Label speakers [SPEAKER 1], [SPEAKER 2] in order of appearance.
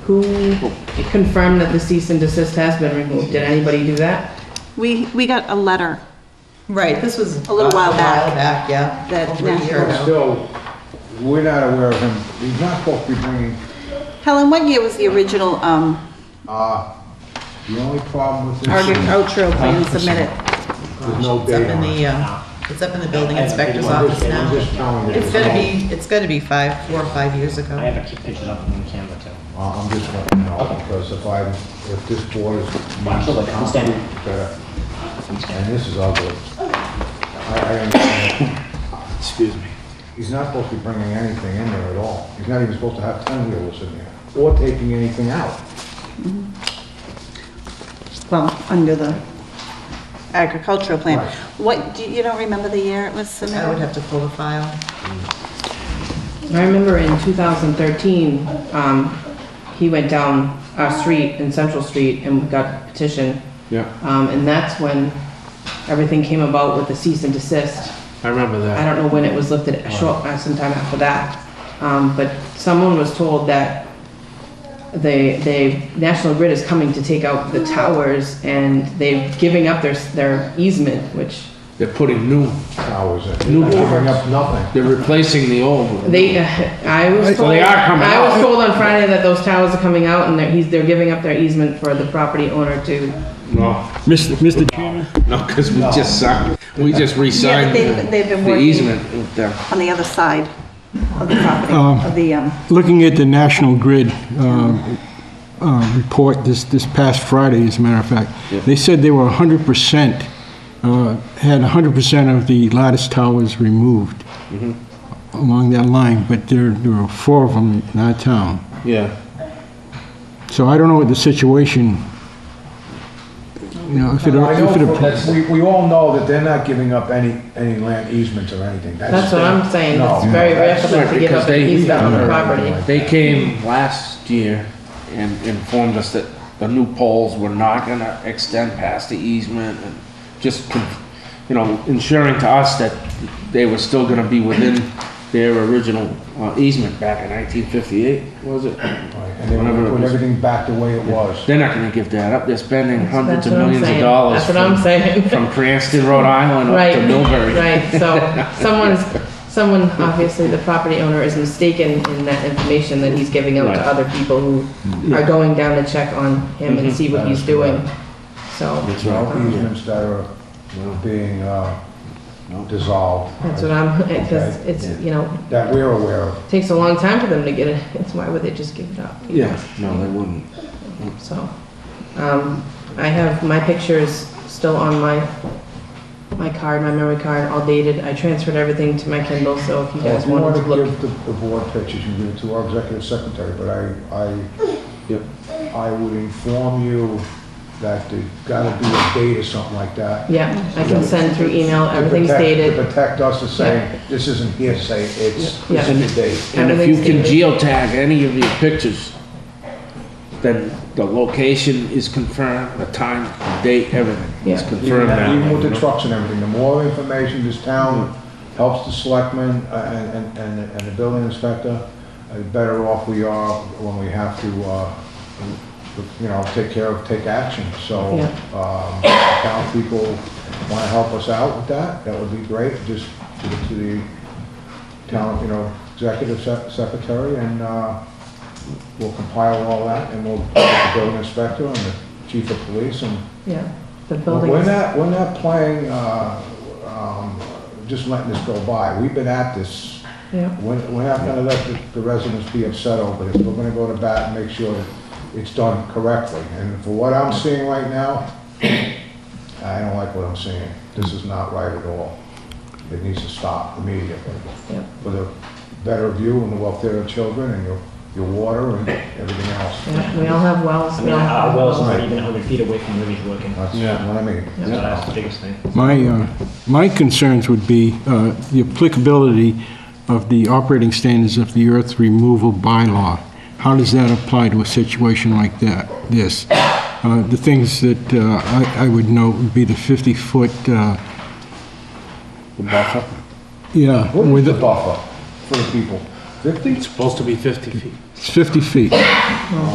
[SPEAKER 1] Who confirmed that the cease and desist has been removed? Did anybody do that?
[SPEAKER 2] We, we got a letter
[SPEAKER 3] Right, this was.
[SPEAKER 2] A little while back.
[SPEAKER 3] A while back, yeah.
[SPEAKER 2] That
[SPEAKER 3] Over a year
[SPEAKER 2] National-
[SPEAKER 3] ago.
[SPEAKER 4] Still, we're not aware of him, he's not supposed to be bringing,
[SPEAKER 2] Helen, what year was the original um,
[SPEAKER 4] uh, the only problem with this. is
[SPEAKER 2] agricultural plan submitted?
[SPEAKER 4] There's
[SPEAKER 3] It's
[SPEAKER 4] no
[SPEAKER 3] up
[SPEAKER 4] date
[SPEAKER 3] in
[SPEAKER 4] on it.
[SPEAKER 3] the, uh, it's up in the building
[SPEAKER 5] I haven't
[SPEAKER 3] inspector's
[SPEAKER 5] been on
[SPEAKER 3] office
[SPEAKER 5] this yet.
[SPEAKER 3] now.
[SPEAKER 5] I'm
[SPEAKER 4] Just
[SPEAKER 3] It's gonna
[SPEAKER 4] telling you.
[SPEAKER 3] be, it's gonna be five, four or five years
[SPEAKER 5] I
[SPEAKER 3] ago.
[SPEAKER 5] have a few pictures up on camera too.
[SPEAKER 4] Uh, I'm just letting you know,
[SPEAKER 5] Okay.
[SPEAKER 4] because if I, if this board is.
[SPEAKER 5] Sure, like, I'm standing.
[SPEAKER 4] Better. And this is ugly. I, I understand.
[SPEAKER 6] Excuse me.
[SPEAKER 4] He's not supposed to be bringing anything in there at all. He's not even supposed to have ten wheelers in there, or taking anything out.
[SPEAKER 2] Well, under the agricultural plan.
[SPEAKER 4] Right.
[SPEAKER 2] What, do you you don't remember the year it was
[SPEAKER 3] I would
[SPEAKER 2] submitted?
[SPEAKER 3] have to pull the file.
[SPEAKER 1] I remember in 2013, um, he went down our street in Central Street and got a petition.
[SPEAKER 6] Yeah,
[SPEAKER 1] Um, and that's when everything came about with the cease and desist.
[SPEAKER 6] I remember
[SPEAKER 1] I
[SPEAKER 6] that.
[SPEAKER 1] don't know when it was lifted, a short, uh, sometime after that. Um, but someone was told that they, they, National Grid is coming to take out the towers and they're giving up their, their easement, which
[SPEAKER 6] They're putting new,
[SPEAKER 4] Towers in.
[SPEAKER 6] New
[SPEAKER 4] Not Bringing up nothing.
[SPEAKER 6] they're replacing the old one.
[SPEAKER 1] They, uh, I was
[SPEAKER 6] So
[SPEAKER 1] told,
[SPEAKER 6] they are coming
[SPEAKER 1] I was
[SPEAKER 6] out.
[SPEAKER 1] told on Friday that those towers are coming out and they're, he's, they're giving up their easement for the property owner to.
[SPEAKER 6] No,
[SPEAKER 5] Mr. Chairman?
[SPEAKER 6] no, because we just signed, we just
[SPEAKER 2] Yeah,
[SPEAKER 6] re-signed
[SPEAKER 2] they've- they've been
[SPEAKER 6] the
[SPEAKER 2] working.
[SPEAKER 6] easement with them.
[SPEAKER 2] On the other side of the property, of the, um,
[SPEAKER 7] Looking at the National Grid um, uh, report this, this past Friday, as a matter of fact, they said they were 100%, uh, had 100% of the lattice towers removed
[SPEAKER 4] Mm-hmm.
[SPEAKER 7] along that line, but there, there were four of them in our town.
[SPEAKER 6] Yeah.
[SPEAKER 7] So I don't know what the situation, you know, if it...
[SPEAKER 4] I
[SPEAKER 7] if
[SPEAKER 4] know,
[SPEAKER 7] it-
[SPEAKER 4] that's, we, we all know that they're not giving up any, any land easements or anything.
[SPEAKER 1] That's what I'm saying,
[SPEAKER 4] No.
[SPEAKER 1] it's very rare for them to give
[SPEAKER 6] Because
[SPEAKER 1] up their
[SPEAKER 6] they-
[SPEAKER 1] easement on the property.
[SPEAKER 6] They came last year and informed us that the new poles were not gonna extend past the easement and just, con- you know, ensuring to us that they were still gonna be within their original uh, easement back in nineteen fifty-eight, was it?
[SPEAKER 4] And they
[SPEAKER 6] Whenever
[SPEAKER 4] wanna
[SPEAKER 6] it
[SPEAKER 4] put
[SPEAKER 6] was.
[SPEAKER 4] everything back the way it was.
[SPEAKER 6] They're not gonna give that up. They're spending hundreds
[SPEAKER 1] That's
[SPEAKER 6] of
[SPEAKER 1] what I'm
[SPEAKER 6] millions of
[SPEAKER 1] saying.
[SPEAKER 6] dollars.
[SPEAKER 1] That's what I'm
[SPEAKER 6] from-
[SPEAKER 1] saying.
[SPEAKER 6] From Cranston, Rhode Island up
[SPEAKER 1] Right,
[SPEAKER 6] to Millbury.
[SPEAKER 1] right, so someone's, someone, obviously the property owner is mistaken in that information that he's giving out to
[SPEAKER 6] Right.
[SPEAKER 1] other people who are going down to check on him
[SPEAKER 6] Mm-hmm.
[SPEAKER 1] and see what he's doing, so.
[SPEAKER 6] That's
[SPEAKER 4] You know,
[SPEAKER 1] um,
[SPEAKER 4] easements that are being uh, dissolved.
[SPEAKER 1] That's what I'm, because
[SPEAKER 4] Okay.
[SPEAKER 1] it's, you know,
[SPEAKER 4] That we're aware of.
[SPEAKER 1] takes a long time for them to get it, it's why would they just give it up? you
[SPEAKER 6] Yeah, no, they wouldn't.
[SPEAKER 1] know, So, um, I have, my pictures still on my, my card, my memory card, all dated, I transferred everything to my Kindle, so if you guys
[SPEAKER 4] If you want
[SPEAKER 1] wanted
[SPEAKER 4] to
[SPEAKER 1] to look.
[SPEAKER 4] give the the board pictures, you can give it to our executive secretary, but I,
[SPEAKER 6] Yep.
[SPEAKER 4] I, I would inform you that there's got to be a date or something like that. to
[SPEAKER 1] Yeah, I can send through email, everything's
[SPEAKER 4] protect- To
[SPEAKER 1] dated,
[SPEAKER 4] protect us as saying, this isn't hearsay, it's,
[SPEAKER 1] Yeah.
[SPEAKER 4] it's in the date.
[SPEAKER 6] And if you can
[SPEAKER 1] Everything's
[SPEAKER 6] geotag any of your pictures, then the location is confirmed, the time, the date, everything is
[SPEAKER 1] Yeah.
[SPEAKER 6] confirmed
[SPEAKER 4] Even
[SPEAKER 6] now.
[SPEAKER 4] even with the trucks and everything, the more information this town helps the selectmen uh, and, and, and and the building inspector, uh, the better off we are when we have to, uh, you know, take care of, take action. So,
[SPEAKER 1] Yeah.
[SPEAKER 4] um, if town people want to help us out with that, that would be great, just to the- to the town, you know, executive sec- secretary, and uh, we'll compile all that, and we'll, put it to the building inspector and the chief of police, and
[SPEAKER 1] yeah, the building
[SPEAKER 4] we're
[SPEAKER 1] is,
[SPEAKER 4] not, we're not playing, uh, um, just letting this go by. We've been at this.
[SPEAKER 1] yeah,
[SPEAKER 4] We're we're not gonna let the- the residents be upset over this. We're gonna go to bat and make sure that it's done correctly. And for what I'm seeing right now, I don't like what I'm seeing. This is not right at all. It needs to stop immediately
[SPEAKER 1] yeah.
[SPEAKER 4] for the better of you and the welfare of children and your, your water and everything else.
[SPEAKER 1] Yeah, We all have wells,
[SPEAKER 5] I
[SPEAKER 1] we
[SPEAKER 5] mean,
[SPEAKER 1] all
[SPEAKER 5] our
[SPEAKER 1] have
[SPEAKER 5] well's
[SPEAKER 1] wells.
[SPEAKER 5] not even 100 feet away from where he's working. So
[SPEAKER 4] That's what I mean.
[SPEAKER 5] that's the biggest thing.
[SPEAKER 7] My, uh, my concerns would be uh, the applicability of the operating standards of the earth removal bylaw. How does that apply to a situation like that, this? Uh, The things that uh, I I would note would be the 50-foot, uh,
[SPEAKER 6] The buffer.
[SPEAKER 7] yeah,
[SPEAKER 4] What is
[SPEAKER 7] with,
[SPEAKER 4] the buffer for the people? Fifty?
[SPEAKER 6] It's supposed to be fifty feet.
[SPEAKER 7] it's 50 feet.